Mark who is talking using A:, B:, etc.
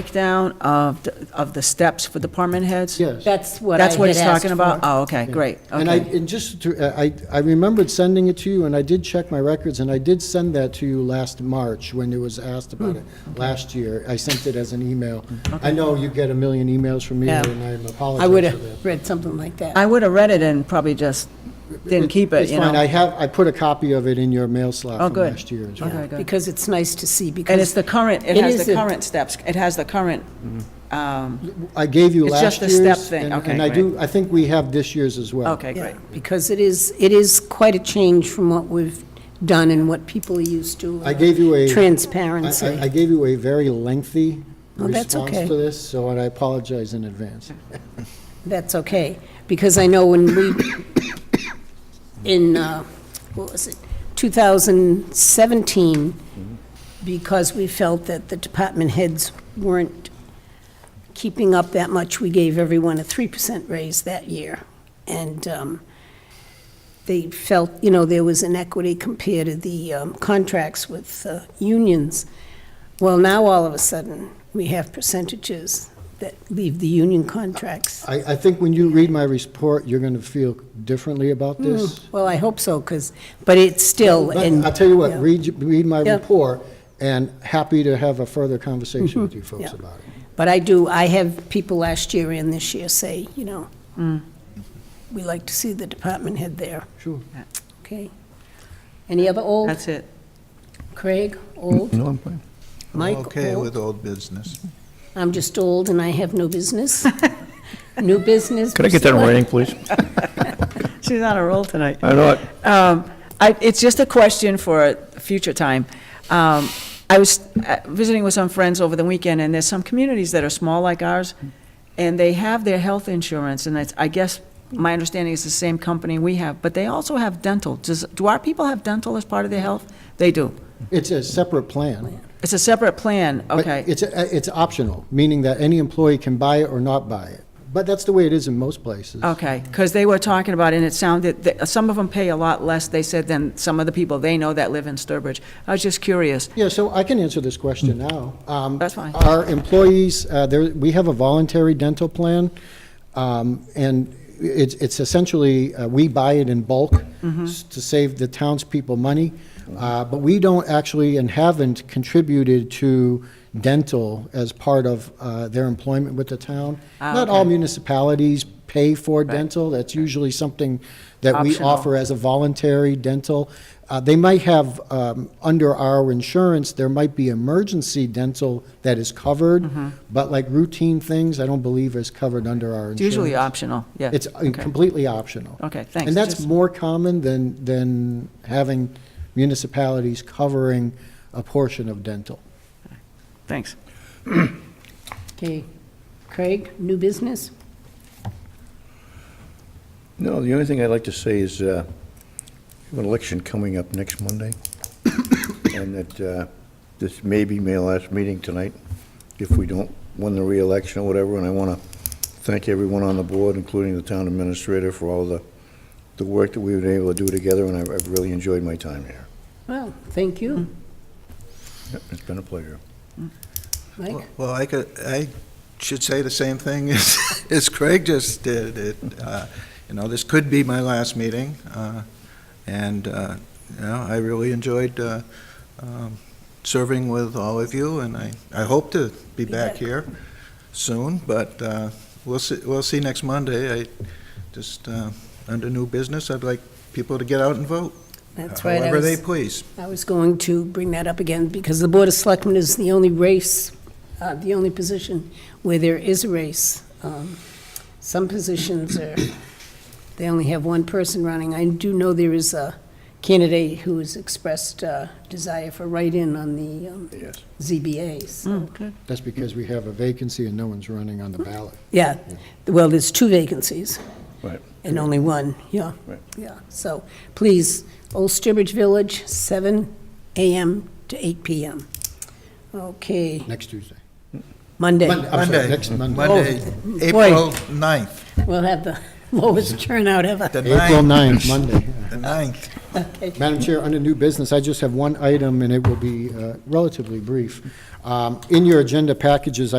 A: breakdown of, the- of the steps for department heads?
B: Yes.
C: That's what I
A: That's what
C: had
A: he's
C: asked
A: talking about?
C: for.
A: Oh, okay, great,
B: And I,
A: okay.
B: and just to, uh, I, I remembered sending it to you, and I did check my records, and I did send that to you last March when it was asked
A: Hmm.
B: about it, last year. I sent it as an email. I know you get a million emails from me,
C: Yeah.
B: and I
C: I would
B: apologize for that.
C: have read something like that.
A: I would have read it and probably just didn't keep it,
B: It's
A: you
B: fine, I
A: know?
B: have, I put a copy of it in your mail slot
A: Oh,
B: from
A: good.
B: last year as well.
A: Okay, good.
C: Because it's nice to see, because.
A: And it's the current, it
C: It
A: has
C: is
A: the
C: a-
A: current steps, it has the current, um,
B: I gave you
A: It's
B: last year's.
A: just a step thing.
B: and-
A: Okay,
B: And I
A: great.
B: do, I think we have this year's as well.
A: okay,
C: Yeah,
A: great.
C: Because it is, it is quite a change from what we've done and what people are used to.
B: I gave you a- I-
C: Transparency.
B: I, I gave you a very lengthy
C: Oh, that's
B: response
C: okay.
B: to this, so I apologize in advance.
C: That's okay, because I know when we, in, uh, what was it, 2017, because we felt that the department heads weren't keeping up that much, we gave everyone a 3% raise that year. And um, they felt, you know, there was inequity compared to the um, contracts with uh, unions. Well, now, all of a sudden, we have percentages that leave the union contracts
B: I, I think when you read my report, you're going to feel differently
C: Hmm.
B: about this.
C: Well, I hope so, because, but it's still,
B: But
C: and.
B: I'll tell you what,
C: yeah.
B: read, y- read my
C: Yeah.
B: report, and happy to have a further conversation with you folks
C: Mm-hmm. Yeah.
B: about it.
C: But I do, I have people last year and this year say, you know, we like to see the department head there,
B: Sure.
C: okay? Any other old?
A: That's it.
C: Craig, old?
D: No, I'm fine.
C: Mike,
E: Okay
C: old?
E: with old business.
C: I'm just old and I have no business. New business?
D: Could I get that in writing, please?
A: She's on a roll tonight.
D: I know it.
A: Um, I, it's just a question for a future time. Um, I was uh, visiting with some friends over the weekend, and there's some communities that are small like ours, and they have their health insurance, and it's, I guess, my understanding is the same company we have, but they also have dental. Does, do our people have dental as part of their health? They do.
B: It's a separate plan.
A: It's a separate plan,
B: but
A: okay.
B: It's, a- it's optional, meaning that any employee can buy it or not buy it. But that's the way it is in most places.
A: Okay, because they were talking about, and it sounded, that some of them pay a lot less, they said, than some of the people they know that live in Sturbridge. I was just curious.
B: Yeah, so I can answer this question now. Um,
A: That's fine.
B: Our employees, uh, there, we have a voluntary dental plan, um, and it's, it's essentially, uh, we buy it in bulk
A: Mm-hmm.
B: s- to save the townspeople money, uh, but we don't actually and haven't contributed to dental as part of uh, their employment with the town.
A: Ah,
B: Not all
A: okay.
B: municipalities pay for dental, that's usually something that we
A: Optional.
B: offer offer as a voluntary dental. Uh, They might have, um, under our insurance, there might be emergency dental that is covered,
A: Mm-hmm.
B: but like routine things, I don't believe is covered under our
A: It's
B: insurance.
A: usually optional, yeah.
B: It's uh,
A: Okay.
B: completely optional.
A: Okay, thanks.
B: And that's
A: Just-
B: more common than, than having municipalities covering a portion of dental.
A: Thanks.
C: Okay. Craig, new business?
D: No, the only thing I'd like to say is, uh, we have an election coming up next Monday, and that uh, this may be my last meeting tonight, if we don't win the reelection or whatever, and I want to thank everyone on the board, including the town administrator, for all the, the work that we've been able to do together, and I've I've really enjoyed my time here.
C: Well, thank you,
D: Yep, It's been a pleasure.
C: Mike.
E: Well, I could, I should say the same thing as, as Craig just did. It, uh, you know, this could be my last meeting, uh, and, uh, you know, I really enjoyed, uh, um, serving with all of you, and I, I hope to be back
C: back.
E: here soon, but, uh, we'll see, we'll see next Monday. I just, uh, under new business, I'd like people to get out and vote.
C: That's right. I
E: However
C: was-
E: they please.
C: I was going to bring that up again, because the Board of Selectmen is the only race, uh, the only position where there is a race. Um, Some positions are, they only have one person running. I do know there is a candidate who has expressed uh, desire for write-in on the um,
D: Yes.
C: ZBA, so,
A: Okay.
B: That's because we have a vacancy and no one's running on the
A: Hmm.
B: ballot.
C: yeah. Well, there's two vacancies.
D: Right.
C: And only one, yeah.
D: Right.
C: Yeah, so please, Old Sturbridge Village, 7 AM to 8 PM. Okay,
B: Next Tuesday.
C: Monday,
B: Monday, I'm sorry,
E: Monday.
B: next Monday.
E: Monday,
C: boy.
E: April 9th,
C: we'll have the lowest turnout ever.
E: the
B: April
E: 9th,
B: 9th, Monday.
E: the 9th.
B: Madam Chair, under new business, I just have one item, and it will be uh, relatively brief. Um, In your agenda packages, I